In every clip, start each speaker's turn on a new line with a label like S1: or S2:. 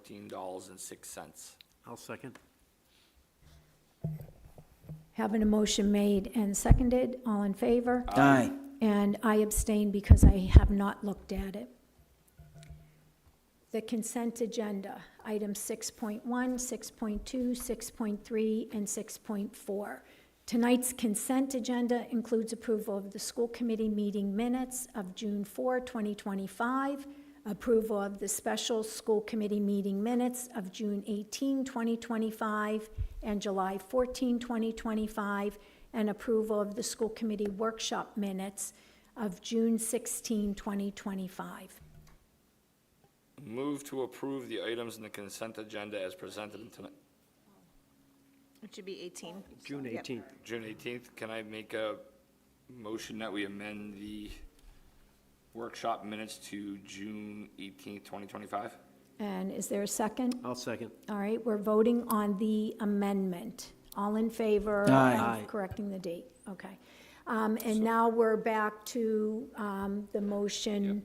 S1: nineteen dollars and six cents.
S2: I'll second.
S3: Having a motion made and seconded, all in favor?
S4: Aye.
S3: And I abstain because I have not looked at it. The consent agenda, items 6.1, 6.2, 6.3, and 6.4. Tonight's consent agenda includes approval of the school committee meeting minutes of June 4, 2025, approval of the special school committee meeting minutes of June 18, 2025, and July 14, 2025, and approval of the school committee workshop minutes of June 16, 2025.
S1: Move to approve the items in the consent agenda as presented in tonight,
S5: It should be 18.
S2: June
S5: Yep.
S2: 18th.
S1: June eighteenth. Can I make a motion that we amend the workshop minutes to June eighteenth, twenty twenty-five?
S3: And is there a second?
S2: I'll second.
S3: All right, we're voting on the amendment. All in favor
S4: Aye.
S3: of correcting the date? Okay. Um, And now we're back to um, the motion.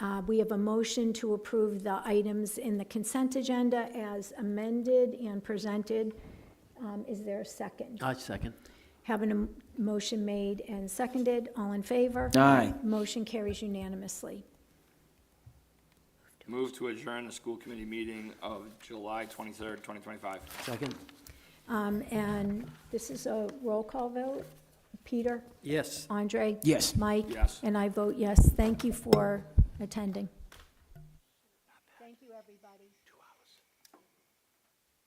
S3: Uh, We have a motion to approve the items in the consent agenda as amended and presented. Um, Is there a second?
S2: I second.
S3: Having a m- motion made and seconded, all in favor?
S4: Aye.
S3: Motion carries unanimously.
S1: Move to adjourn the school committee meeting of July twenty-third, twenty twenty-five.
S2: Second?
S3: Um, And this is a roll call vote. Peter?
S2: Yes.
S3: Andre?
S4: Yes.
S3: Mike?
S1: Yes.
S3: And I vote yes. Thank you for attending.